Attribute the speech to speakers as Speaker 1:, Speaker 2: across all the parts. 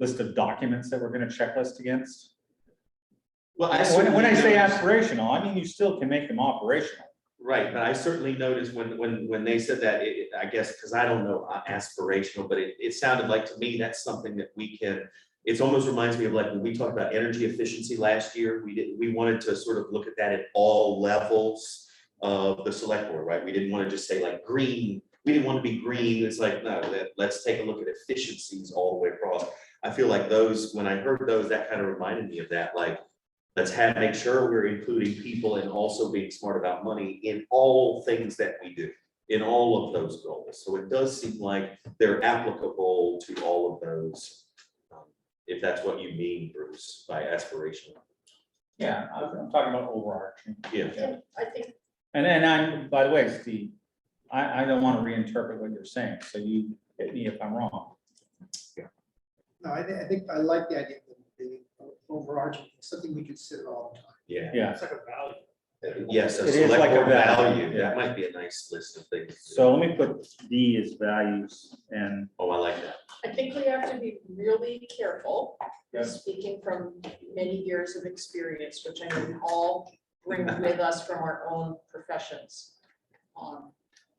Speaker 1: list of documents that we're gonna checklist against?
Speaker 2: Well, I
Speaker 1: When, when I say
Speaker 2: certainly noticed-
Speaker 1: aspirational, I mean, you still can make them operational.
Speaker 2: Right, but I certainly noticed when, when, when they said that, it, it- I guess, because I don't know uh, aspirational, but it, it sounded like to me, that's something that we can. It's almost reminds me of like when we talked about energy efficiency last year, we didn't, we wanted to sort of look at that at all levels of the select board, right? We didn't want to just say like green, we didn't want to be green, it's like, no, let, let's take a look at efficiencies all the way across. I feel like those, when I heard those, that kind of reminded me of that, like, let's have, make sure we're including people and also being smart about money in all things that we do, in all of those goals. So it does seem like they're applicable to all of those. um, If that's what you mean, Bruce, by aspiration.
Speaker 1: Yeah, I- I'm talking about overarching.
Speaker 2: Yeah.
Speaker 3: Yeah, I think,
Speaker 1: And then I'm, by the way, Steve, I, I don't want to reinterpret what you're saying, so you hit me if I'm wrong.
Speaker 4: No, I think, I think I like the idea of the overarching, something we consider all the time.
Speaker 2: Yeah,
Speaker 1: Yeah,
Speaker 4: It's like a value.
Speaker 2: yes,
Speaker 1: It
Speaker 2: a
Speaker 1: is like
Speaker 2: select
Speaker 1: a
Speaker 2: board
Speaker 1: value,
Speaker 2: value,
Speaker 1: yeah.
Speaker 2: that might be a nice list of things.
Speaker 1: so let me put D as values and.
Speaker 2: Oh, I like that.
Speaker 3: I think we have to be really careful,
Speaker 1: Yes.
Speaker 3: speaking from many years of experience, which I know we all bring with us from our own professions. Um,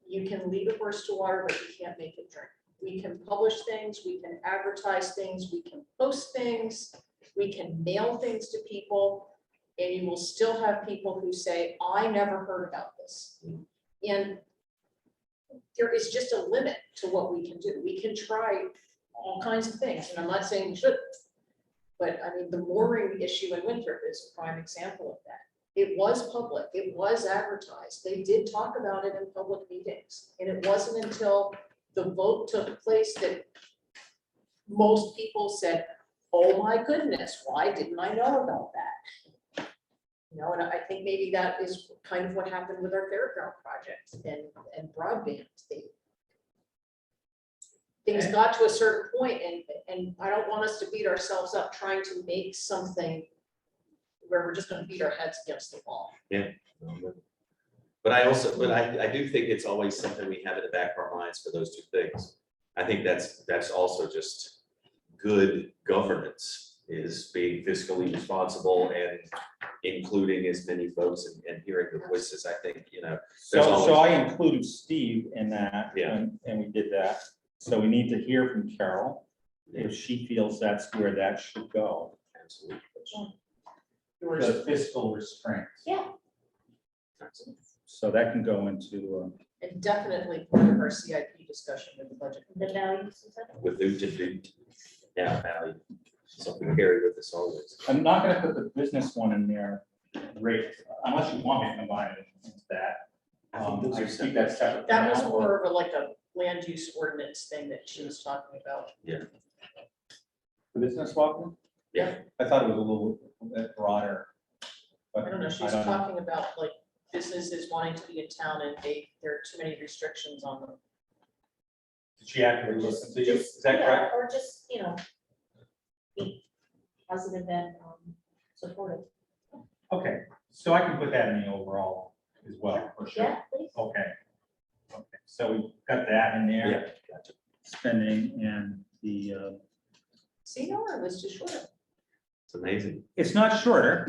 Speaker 3: You can lead a horse to water, but you can't make it drink. We can publish things, we can advertise things, we can post things, we can mail things to people. And you will still have people who say, I never heard about this. And there is just a limit to what we can do. We can try all kinds of things, and I'm not saying we should. But I mean, the mooring issue in Winthrop is a prime example of that. It was public, it was advertised, they did talk about it in public meetings. And it wasn't until the vote took place that most people said, oh my goodness, why didn't I know about that? You know, and I think maybe that is kind of what happened with our fairground project and, and broadband. They- Things got to a certain point and, and I don't want us to beat ourselves up trying to make something where we're just gonna beat our heads against the wall.
Speaker 2: But I also, but I, I do think it's always something we have in the back of our minds for those two things. I think that's, that's also just good governance is being fiscally responsible and including as many folks and, and hearing the voices. I think, you know,
Speaker 1: So,
Speaker 2: There's
Speaker 1: so I
Speaker 2: always-
Speaker 1: included Steve in that.
Speaker 2: Yeah.
Speaker 1: And, and we did that. So we need to hear from Carol if she feels that's where that should go.
Speaker 2: absolutely.
Speaker 1: The fiscal restraint.
Speaker 3: Yeah.
Speaker 1: So that can go into, uh,
Speaker 3: And definitely part of our CIP discussion with the budget. The values.
Speaker 2: With who to do, yeah, value, something carried with us always.
Speaker 1: I'm not gonna put the business one in there, rate, unless you want me to combine it into that.
Speaker 2: I think
Speaker 1: Um,
Speaker 2: those
Speaker 1: I
Speaker 2: are
Speaker 1: just keep
Speaker 2: separate.
Speaker 1: that separate. for
Speaker 3: That was
Speaker 1: now.
Speaker 3: more of a, like a land use ordinance thing that she was talking about.
Speaker 1: The business welcome?
Speaker 2: Yeah.
Speaker 1: I thought it was a little bit broader. but
Speaker 3: I don't know, she's
Speaker 1: don't
Speaker 3: talking about like businesses wanting to be in town and they, there are too many restrictions on them.
Speaker 1: Did she actually listen
Speaker 5: Just-
Speaker 1: to you?
Speaker 5: just-
Speaker 1: Is that
Speaker 5: yeah,
Speaker 1: correct?
Speaker 5: Or just, you know, be positive and um, supportive.
Speaker 1: Okay, so I can put that in the overall as well, for sure.
Speaker 5: Yeah, please.
Speaker 1: Okay. Okay, so we've got that in
Speaker 2: Yeah,
Speaker 1: there,
Speaker 2: gotcha.
Speaker 1: spending and the, uh,
Speaker 3: See, no, it was too short.
Speaker 2: It's amazing.
Speaker 1: it's not shorter.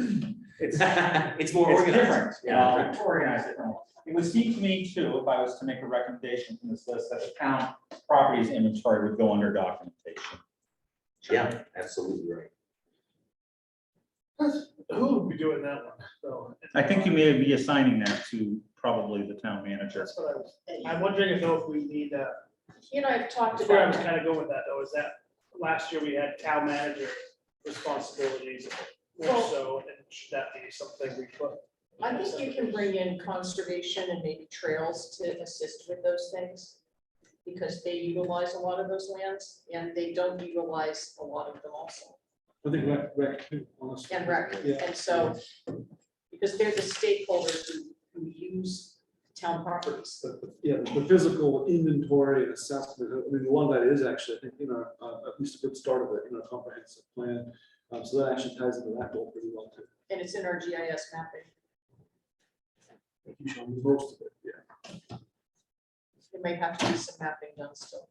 Speaker 1: It's,
Speaker 2: It's more
Speaker 1: it's
Speaker 2: organized. Um,
Speaker 1: different. Yeah, it's organized. differently. It would seem to me too, if I was to make a recommendation from this list, that the town properties inventory would go under documentation.
Speaker 2: Yeah, absolutely right.
Speaker 4: Who would be doing that one, though?
Speaker 1: I think you may be assigning that to probably the town manager.
Speaker 4: That's what I was, I'm wondering if though if we need that,
Speaker 3: He and I have talked
Speaker 6: uh, That's where I was
Speaker 3: about,
Speaker 6: kind of going with that, though, is that last year we had town manager responsibilities more
Speaker 3: Well-
Speaker 6: so, and should that be something we put?
Speaker 3: I think you can bring in conservation and maybe trails to assist with those things. Because they utilize a lot of those lands and they don't utilize a lot of them also.
Speaker 7: I think rec, rec too, honestly.
Speaker 3: and rec,
Speaker 7: Yeah.
Speaker 3: and so, because they're the stakeholders who, who use town properties.
Speaker 7: But, but, yeah, the the physical inventory and assessment, I mean, a lot of that is actually, I think, you know, uh, at least a good start of it, you know, comprehensive plan. Um, so that actually ties into that goal pretty well too.
Speaker 3: And it's in our GIS mapping,
Speaker 7: Like, You show me most of it, yeah.
Speaker 3: there may have to be some mapping done still.